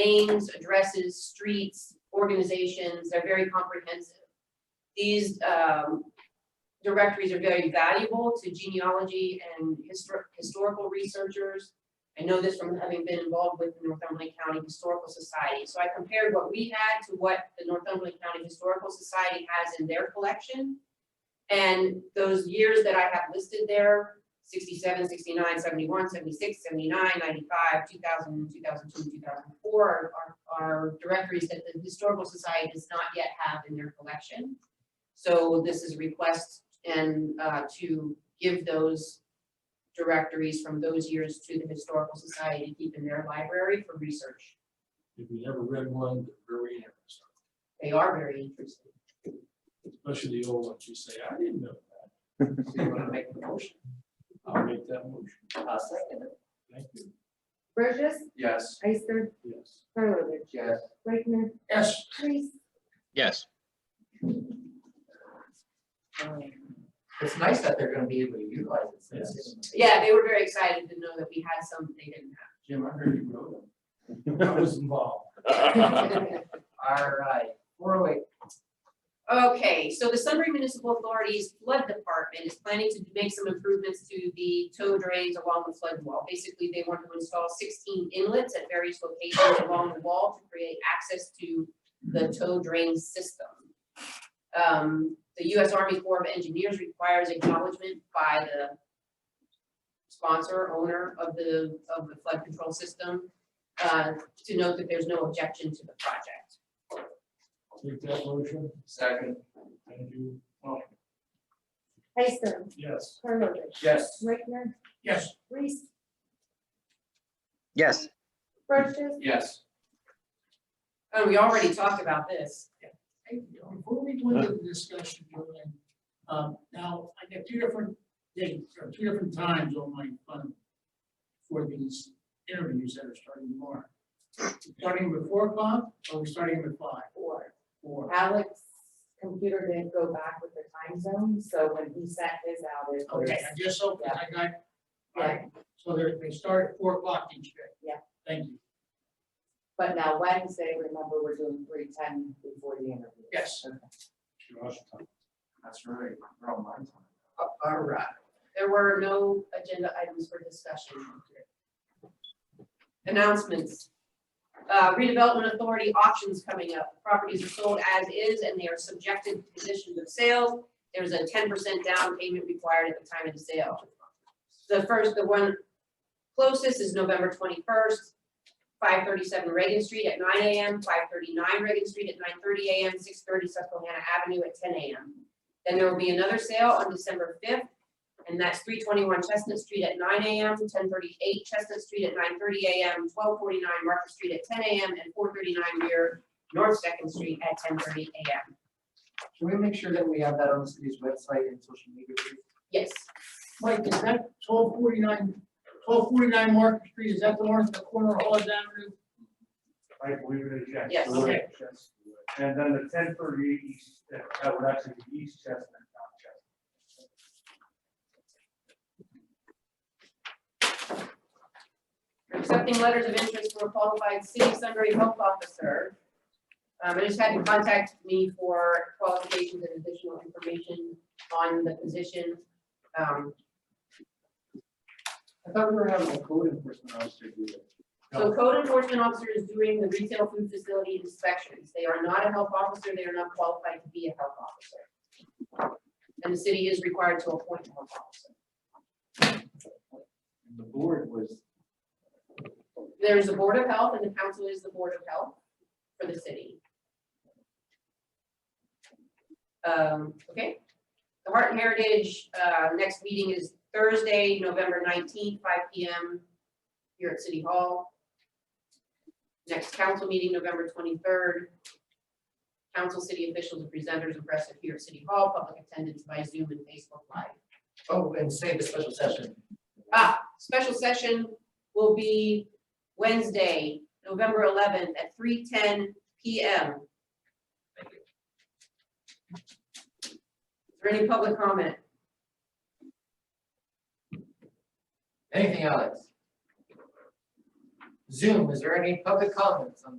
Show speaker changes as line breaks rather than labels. names, addresses, streets, organizations, they're very comprehensive. These um, directories are very valuable to genealogy and histor- historical researchers. I know this from having been involved with the Northumberland County Historical Society. So I compared what we had to what the Northumberland County Historical Society has in their collection. And those years that I have listed there, 67, 69, 71, 76, 79, 95, 2000, 2002, 2004 are- are, are directories that the Historical Society does not yet have in their collection. So this is a request and uh, to give those directories from those years to the Historical Society to keep in their library for research.
If you never read one, they're very interesting,
They are very interesting.
especially the old ones. You say, I didn't know that.
Do you want to make the motion?
I'll make that motion.
I'll second it.
Thank you.
Burgess,
Yes.
Ister,
Yes.
Karlovic,
Yes.
Reichtner,
Yes.
Reese.
yes.
It's nice that they're gonna be able to utilize it. so it's-
Yeah, they were very excited to know that we had some they didn't
Jim, I heard you wrote them.
I was involved.
have.
All right, four oh eight.
Okay, so the Sunbury Municipal Authority's flood department is planning to make some improvements to the tow drains along the flood wall. Basically, they want to install sixteen inlets at various locations along the wall to create access to the tow drain system. Um, the US Army Corps of Engineers requires acknowledgement by the sponsor, owner of the, of the flood control system, uh, to note that there's no objection to the project.
Take that motion.
Second.
Thank you.
Ister,
Yes.
Karlovic,
Yes.
Reichtner,
Yes.
Reese,
Yes,
Burgess,
Yes.
Oh, we already talked about this.
Hey, Before we go into the discussion, Joanne, um, now, I got two different dates, or two different times on my phone for these interviews that are starting tomorrow. Starting at four o'clock, or we starting at five?
Four.
Four.
Alex's computer didn't go back with the time zone, so when he sent his out, it was.
Okay, I guess so, 'cause I got, all right, so they're, they start at four o'clock each day.
Yeah.
Thank you.
But now Wednesday, remember, we're doing three ten before the interview.
Yes.
That's right. We're on my time.
Oh, All right. There were no agenda items for discussion. Announcements. Uh, redevelopment authority auctions coming up. Properties are sold as is and they are subjected to conditions of sales. There's a ten percent down payment required at the time of the sale. The first, the one closest is November twenty-first, five thirty-seven Reagan Street at nine AM, five thirty-nine Reagan Street at nine thirty AM, six thirty Susquehanna Avenue at ten AM. Then there will be another sale on December fifth, and that's three twenty-one Chestnut Street at nine AM, ten thirty-eight Chestnut Street at nine thirty AM, twelve forty-nine Market Street at ten AM, and four thirty-nine near North Second Street at ten thirty AM.
Can we make sure that we have that on the city's website and social media? please?
Yes,
Mike, is that twelve forty-nine, twelve forty-nine Market Street, is that the one at the corner of Hollis Avenue?
I believe it is, yes.
Yes.
Okay.
And then the ten thirty east, uh, that would actually be East Chestnut, not Chestnut.
We're accepting letters of interest from a qualified city Sunbury health officer. Um, I just had to contact me for qualifications and additional information on the position. Um,
I thought we were having a code enforcement officer do that.
So code enforcement officer is doing the retail food facility inspections. They are not a health officer. They are not qualified to be a health officer. And the city is required to appoint a health officer.
The board was,
There is a board of health and the council is the board of health for the city. Um, okay. The Heart and Heritage, uh, next meeting is Thursday, November nineteenth, five P M. Here at City Hall. Next council meeting, November twenty-third. Council, city officials, and presenters and press appear at City Hall, public attendance by Zoom and Facebook Live.
oh, and save the special session.
Ah, special session will be Wednesday, November eleventh at three ten P M. Is there any public comment?
Anything, Alex? Zoom, is there any public comments on